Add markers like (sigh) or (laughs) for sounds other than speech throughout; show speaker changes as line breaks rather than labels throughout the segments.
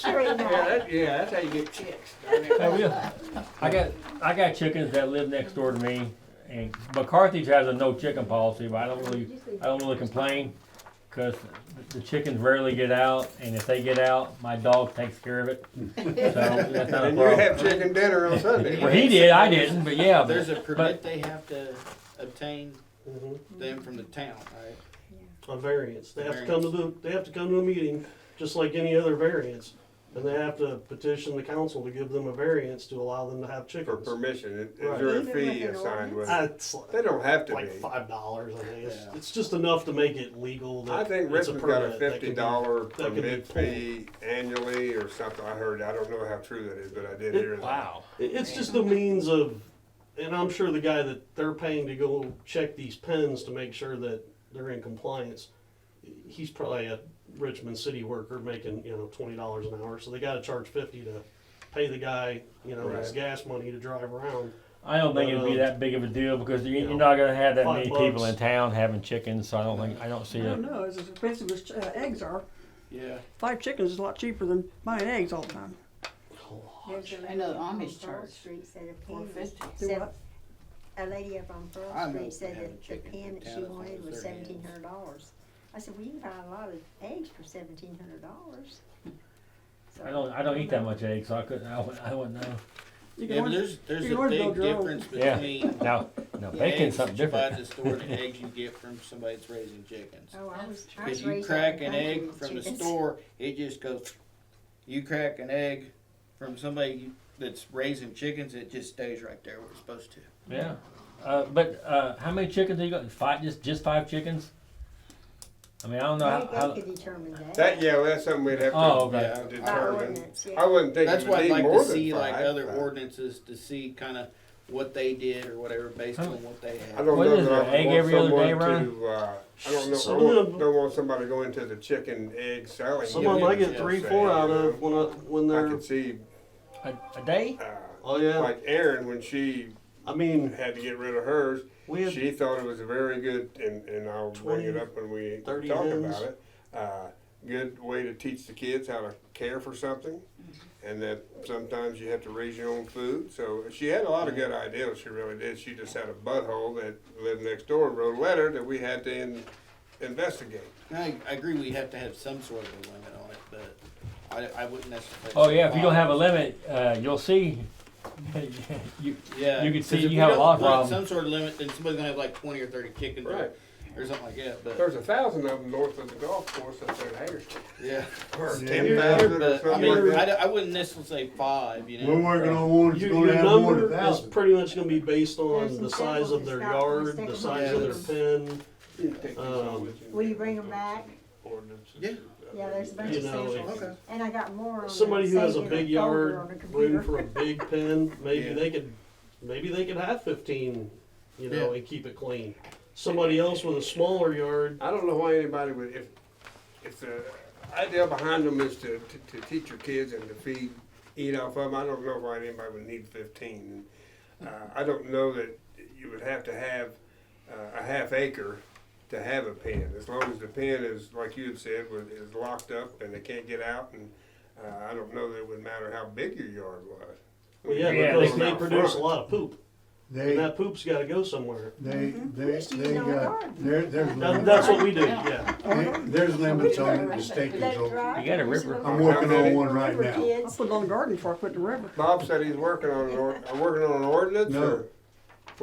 Sure you
Yeah,
might.
that, yeah, that's how you get chicks. darn it.
I will. I got, I got chickens that live next door to me, and McCarthy's has a no chicken policy, but I don't really, I don't really complain, cause the chickens rarely get out, and if they get out, my dog takes care of it, so (laughs) that's not a
And you
problem.
have chicken dinner on Sunday.
Well, he did, I didn't, but yeah,
There's
but,
a permit they have to obtain
Mhm.
Mm-hmm.
them from the town, right?
A variance. They have to come to the, they have to come to a meeting, just like any other variance. And they have to petition the council to give them a variance to allow them to have
For
chickens.
permission, is
Right.
there a
Even
fee
with an
assigned with
Uh,
it?
It's
They don't have to
like
be.
five dollars, I think. It's,
Yeah.
it's just enough to make it legal
I
that
think
it's a
Richmond's got a
permit. that
fifty
can be-
dollar
that can be
permit fee annually or something, I heard, I don't know how true that is, but I did
It-
hear that.
wow.
It- It's just a means of, and I'm sure the guy that they're paying to go check these pens to make sure that they're in compliance, he's probably a Richmond city worker making, you know, twenty dollars an hour, so they gotta charge fifty to pay the guy, you know, his
Right.
gas money to drive around.
I don't think it'd be
Um,
that big of a deal, because you, you're not gonna have that
Five
many people
bucks.
in town having chickens, so I don't think, I don't see
I don't
it.
know, it's as expensive as uh, eggs are.
Yeah.
Five chickens is a lot cheaper than buying eggs all the time.
There's a
I know
lady up on
Amish
Pearl
church,
Street said a
Four
pen was,
fifty.
Do
said-
what?
a lady up on
I
Pearl
know
Street
they
said
have a
that the
chicken
pen
in
that
town
she
as long
wanted
as
was
they're hens.
seventeen hundred dollars. I said, well, you can buy a lot of eggs for seventeen hundred dollars.
I don't, I don't eat that much eggs, so I couldn't, I wouldn't, I wouldn't know.
You can
Yeah, but
order-
there's, there's
you can
a
always build
big
your own.
difference
Yeah. (laughs)
between
Now, now
the
bacon's
eggs
something
that you buy at
different.
the store
(laughs)
and the eggs you get from somebody that's raising chickens.
Oh, I was, I
Cause
was
you
raised.
crack
on
an
country
egg
with
from the
chickens.
store, it just goes, you crack an egg from somebody that's raising chickens, it just stays right there where it's supposed to.
Yeah, uh, but uh, how many chickens are you got? Five, just just five chickens? I mean, I don't know.
They,
How,
they
how,
could determine that.
That, yeah, well, that's something we'd have
Oh,
to uh,
okay.
By
determine.
ordinance,
I
yeah.
wouldn't think
That's
it
why
would
I'd
need
like to
more than
see like
five.
other
but
ordinances to see kinda what they did or whatever based
Huh.
on what they had.
I don't
What
know
is
that
there,
I
egg
want
every other day,
someone
Ron?
to, uh, I don't know, I
Some of
want-
them-
don't want somebody to go into the chicken egg selling.
Some
Yeah,
of them I
yeah,
get
yeah,
three,
per se,
four
you
out
know.
of when I, when
I
they're,
could see,
a, a day?
uh,
oh yeah,
like Erin, when she
I mean,
had to get rid of hers,
we had
She thought it was a very good, and, and I'll bring it
20,
up when we
30
talk
hens.
about it. Uh, good way to teach the kids how to care for something,
Mm-hmm.
and that sometimes you have to raise your own food. So she had a lot of good
Mm-hmm.
ideas. She really did. She just had a butthole that lived next door and wrote a letter that we had to in, investigate.
I, I agree we have to have some sort of a limit on it, but I, I wouldn't necessarily.
Oh yeah. If you don't have a
say
limit, uh, you'll see. (laughs) you,
five. Yeah.
you can see
'cause
you
if we
have a
don't
lot of
put
problems.
Some sort of limit, then somebody's gonna have like twenty or thirty chickens or, or something like that, but,
There's a thousand of them north of the golf course up there at Hagerstown.
yeah.
Or
Yeah.
ten thousand or
But, I
something
mean,
like
I,
that.
don't- I wouldn't necessarily say five, you
We're
know.
working on one that's
Your,
gonna
your
have more
number
than
is
thousand.
pretty much gonna be based
There's
on
some
the size of
samples
their
that's not
yard,
listed
the
on
size of their pen. Um,
Will you bring 'em back?
Yeah.
Yeah, there's a bunch
You
of
know,
samples.
Okay.
And I got more on. the-
Somebody who has a
saved in
big
folder
yard,
on the computer.
room (laughs) for a big pen, maybe
Yeah.
they could, maybe they could have fifteen, you know, and keep it clean. Somebody else with a smaller yard,
I don't know why anybody would, if, if the idea behind them is to, to, to teach your kids and to feed, eat off of them, I don't know why anybody would need fifteen. And, Uh, I don't know that you would have to have, uh, a half acre to have a pen, as long as the pen is, like you had said, was, is locked up and they can't get out and, uh, I don't know that it would matter how big your yard was.
well, yeah,
Yeah,
because
it's
they
Out
produce a
front.
lot of poop,
They,
and that poop's gotta go somewhere.
they, they,
Mm-hmm. Just use
they
it on the
got,
garden.
there, there's
That,
limits.
that's what we do, yeah.
There- There's limits on it, the state
Let
is
it
over.
dry.
You got a
There's
river.
little
I'm working on one right
river
now.
I
kids.
put it on the garden before I put it in the river.
Bob said he's working on an or, uh, working on an ordinance
No.
or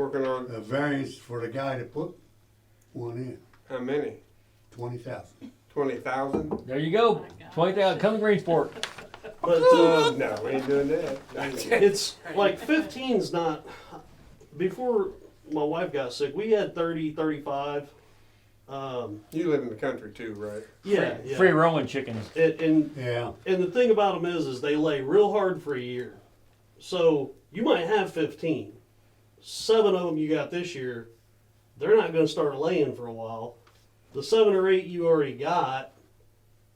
working on
A variance for the guy to put one in,
how many?
twenty thousand.
Twenty thousand?
There you go. Twenty thousand. Come to Greensport.
But, uh,
No, we ain't doing that.
it's like 15's not before my wife got sick we had 30 35 um,
you live in the country too, right?
yeah, yeah.
Free rolling chickens.
And, and
Yeah,
and the thing about them is is they lay real hard for a year so you might have 15 seven of them you got this year they're not going to start laying for a while the seven or eight you already got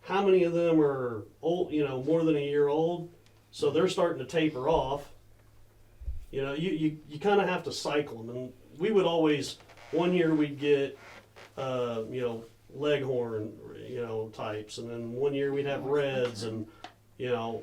how many of them are old you know more than a year old so they're starting to taper off you know you, you, you kind of have to cycle them and we would always one year we'd get uh, you know leghorn you know types and then one year we'd have reds and you know,